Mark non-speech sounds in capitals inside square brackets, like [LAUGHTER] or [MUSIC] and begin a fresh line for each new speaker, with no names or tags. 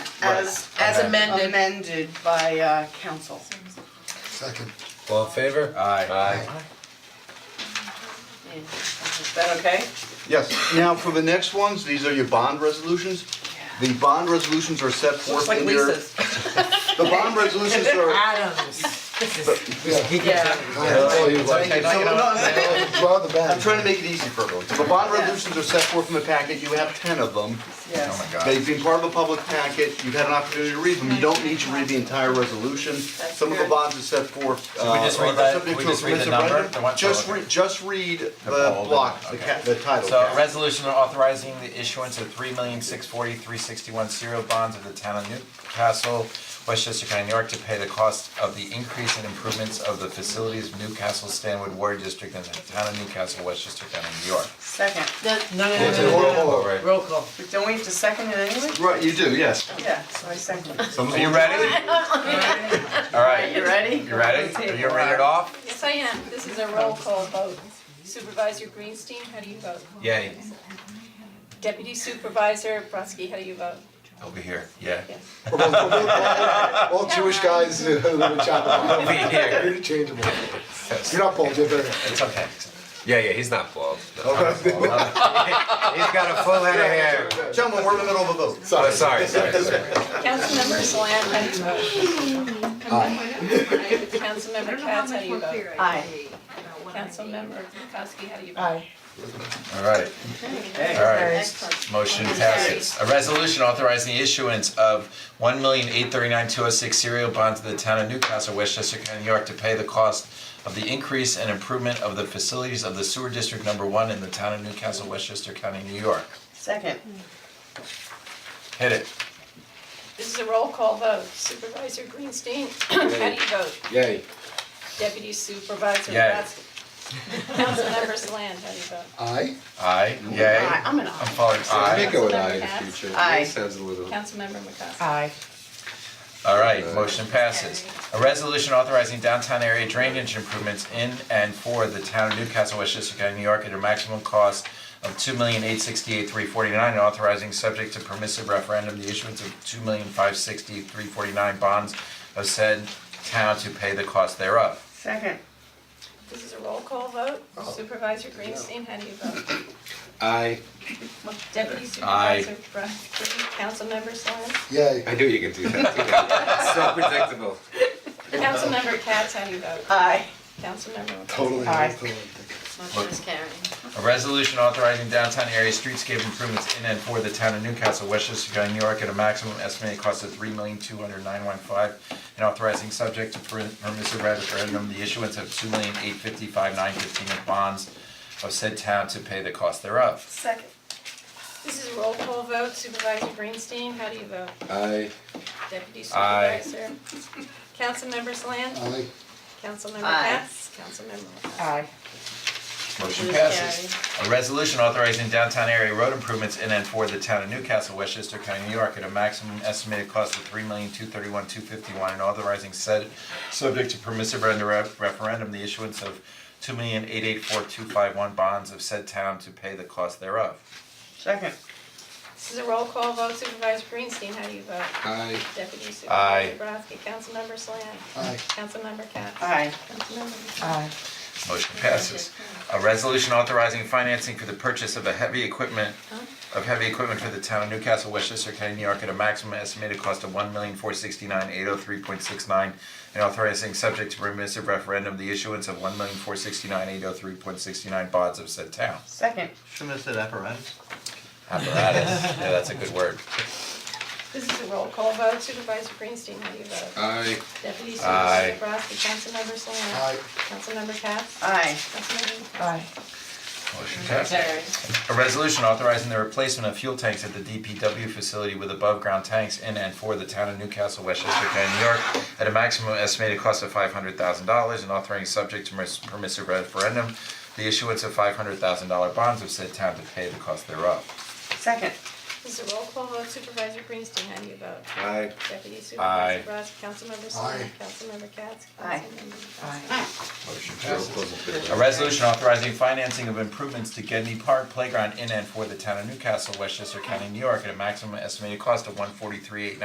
as
As amended.
amended by uh council.
Second.
All in favor?
Aye.
Aye.
Is that okay?
Yes, now for the next ones, these are your bond resolutions. The bond resolutions are set
Looks
forth
like
in your.
Lisa's.
The bond
[LAUGHS]
resolutions are,
Adams. This is
Yeah.
Oh, you like
Okay,
it.
no, no, no,
Draw the bag.
I'm trying to make it easy for everyone. The bond resolutions are set forth in the packet, you have ten of them.
Yes.
Oh my god.
They've been part of a public packet, you've had an opportunity to read them, you don't need to read the entire resolution. Some of the
good.
bonds are set forth, uh,
we just read
are
that-
subject
we
to a
just read the
permissive
number,
referendum.
the one-
Just
okay.
read, just read the
bold
block, the
and-
ca- the title.
So a resolution authorizing the issuance of three million six forty-three sixty-one serial bonds of the town of Newcastle, Westchester County, New York to pay the cost of the increase and improvements of the facilities of Newcastle Stanwood Ward District and the town of Newcastle, Westchester County, New York.
Second.
that, no, no, no,
It's
no,
an
no,
oral-
no. roll call.
But Don't we have to second it anyway?
Right, you do, yes.
Yeah, so I second it.
Some-
Are you ready? Alright,
You ready?
you ready? Are you ready to off?
Yes, I am. This is a roll call vote. Supervisor Greenstein, how do you vote?
Yay,
Deputy Supervisor Brodsky, how do you vote?
he'll be here, yeah.
Yes.
All Jewish guys who live in
[LAUGHS]
Chapel
He'll be here.
You're interchangeable. You're not bald, you're very.
It's okay.
Yeah, yeah, he's not bald. No.
[LAUGHS] He's got a full head of hair.
Gentlemen, we're in the middle of a vote.
Oh, sorry, sorry, sorry.
Councilmember Slant, how do you vote? Councilmember Katz, how do you vote?
Aye.
Councilmember Kukowski, how do you vote?
Aye.
Alright. Alright, motion passes. A resolution authorizing the issuance of one million eight thirty-nine two oh six serial bonds to the town of Newcastle, Westchester County, New York to pay the cost of the increase and improvement of the facilities of the sewer district number one in the town of Newcastle, Westchester County, New York.
Second.
Hit it.
This is a roll call vote. Supervisor Greenstein, how do you vote?
Yay.
Deputy Supervisor
Yay.
Brodsky. Councilmember Slant, how do you vote?
Aye.
Aye, yay.
Aye, I'm an
I'm
aye.
following
I may
aye.
go with aye in the future.
Aye.
That sounds a little.
Councilmember McCoskey.
Aye.
Alright, motion passes. A resolution authorizing downtown area drainage improvements in and for the town of Newcastle, Westchester County, New York at a maximum cost of two million eight sixty-eight three forty-nine, authorizing subject to permissive referendum, the issuance of two million five sixty three forty-nine bonds of said town to pay the cost thereof.
Second.
This is a roll call vote. Supervisor Greenstein, how do you vote?
Aye.
Deputy
Aye.
Supervisor Brodsky, Councilmember Slant,
Yay.
I knew you could do that. So predictable.
Councilmember Katz, how do you vote?
Aye.
Councilmember McCoskey.
Totally.
Aye.
Motion is carried.
A resolution authorizing downtown area streetscape improvements in and for the town of Newcastle, Westchester County, New York at a maximum estimated cost of three million two hundred nine one five and authorizing subject to per- permissive referendum, the issuance of two million eight fifty five nine fifteen of bonds of said town to pay the cost thereof.
Second.
This is a roll call vote. Supervisor Greenstein, how do you vote?
Aye.
Deputy
Aye.
Supervisor. Councilmember Slant,
Aye.
Councilmember
Aye.
Katz, Councilmember McCoskey.
Aye.
Motion
Motion is
passes. A resolution authorizing downtown area road improvements in and for the town of Newcastle, Westchester County, New York at a maximum estimated cost of three million two thirty-one two fifty-one and authorizing said subject to permissive render- referendum, the issuance of two million eight eight four two five one bonds of said town to pay the cost thereof.
Second.
This is a roll call vote. Supervisor Greenstein, how do you vote?
Aye.
Deputy
Aye.
Supervisor Brodsky, Councilmember Slant,
Aye.
Councilmember Katz.
Aye.
Councilmember McCoskey.
Aye.
Motion passes. A resolution authorizing financing for the purchase of a heavy equipment, of heavy equipment for the town of Newcastle, Westchester County, New York at a maximum estimated cost of one million four sixty-nine eight oh three point six nine and authorizing subject to permissive referendum, the issuance of one million four sixty-nine eight oh three point sixty-nine bonds of said town.
Second.
Shouldn't have said apparatus.
Apparatus, yeah, that's a good word.
This is a roll call vote. Supervisor Greenstein, how do you vote?
Aye.
Deputy
Aye.
Supervisor Brodsky, Councilmember Slant.
Aye.
Councilmember Katz.
Aye.
Councilmember
Aye.
Motion passes.
Carried.
A resolution authorizing the replacement of fuel tanks at the DPW facility with above-ground tanks in and for the town of Newcastle, Westchester County, New York, at a maximum estimated cost of five hundred thousand dollars and authorizing subject to permiss- permissive referendum, the issuance of five hundred thousand dollar bonds of said town to pay the cost thereof.
Second.
This is a roll call vote, Supervisor Greenstein, how do you vote?
Aye.
Deputy
Aye.
Supervisor Ross, Councilmember Slant, Councilmember Katz,
Aye.
Councilmember.
Aye.
Oh,
Motion passes. A resolution authorizing financing of improvements to Gedney Park Playground in and for the town of Newcastle, Westchester County, New York, at a maximum estimated cost of one forty-three eight